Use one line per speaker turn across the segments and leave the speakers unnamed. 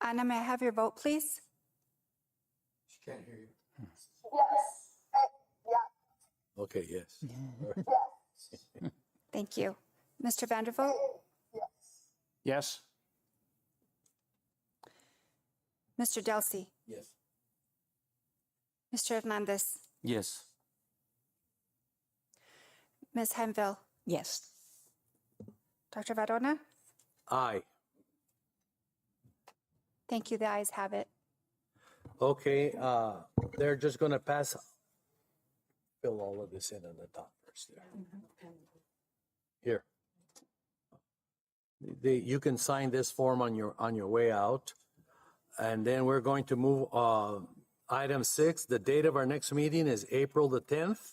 Anna, may I have your vote, please?
She can't hear you.
Yes.
Okay, yes.
Thank you. Mr. Vandervoort?
Yes.
Mr. Delsey?
Yes.
Mr. Hernandez?
Yes.
Ms. Hemville?
Yes.
Dr. Varona?
Aye.
Thank you. The ayes have it.
Okay, uh, they're just gonna pass, fill all of this in on the top first there. Here. The, you can sign this form on your, on your way out. And then we're going to move, uh, item six, the date of our next meeting is April the tenth.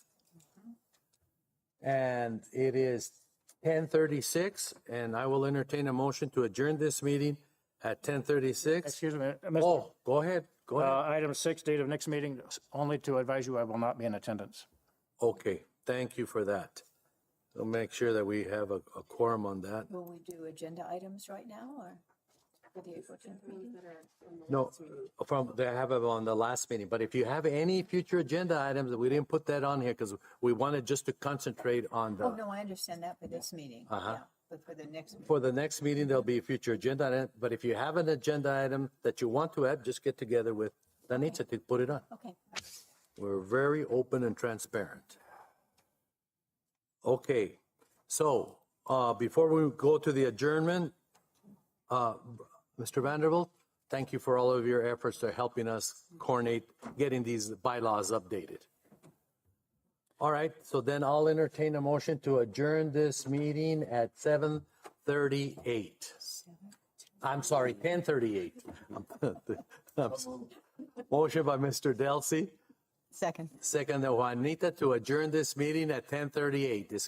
And it is ten thirty-six, and I will entertain a motion to adjourn this meeting at ten thirty-six.
Excuse me.
Oh, go ahead, go ahead.
Uh, Item six, date of next meeting, only to advise you I will not be in attendance.
Okay, thank you for that. We'll make sure that we have a, a quorum on that.
Will we do agenda items right now or for the April 10th meeting?
No, Oh, from, they have it on the last meeting, but if you have any future agenda items, we didn't put that on here because we wanted just to concentrate on
Oh,
the,
no, I understand that for this meeting. Yeah, But for the next meeting.
for the next meeting, there'll be a future agenda item, but if you have an agenda item that you want to add, just get together with Danitza to put it on.
Okay.
We're very open and transparent. Okay, so uh, before we go to the adjournment, uh, Mr. Vanderbilt, thank you for all of your efforts to helping us coordinate getting these bylaws updated. All right, so then I'll entertain a motion to adjourn this meeting at 7:38. I'm sorry, 10:38. I'm so- Motion by Mr. Delsey.
Second.
Second, Juanita, to adjourn this meeting at 10:38. This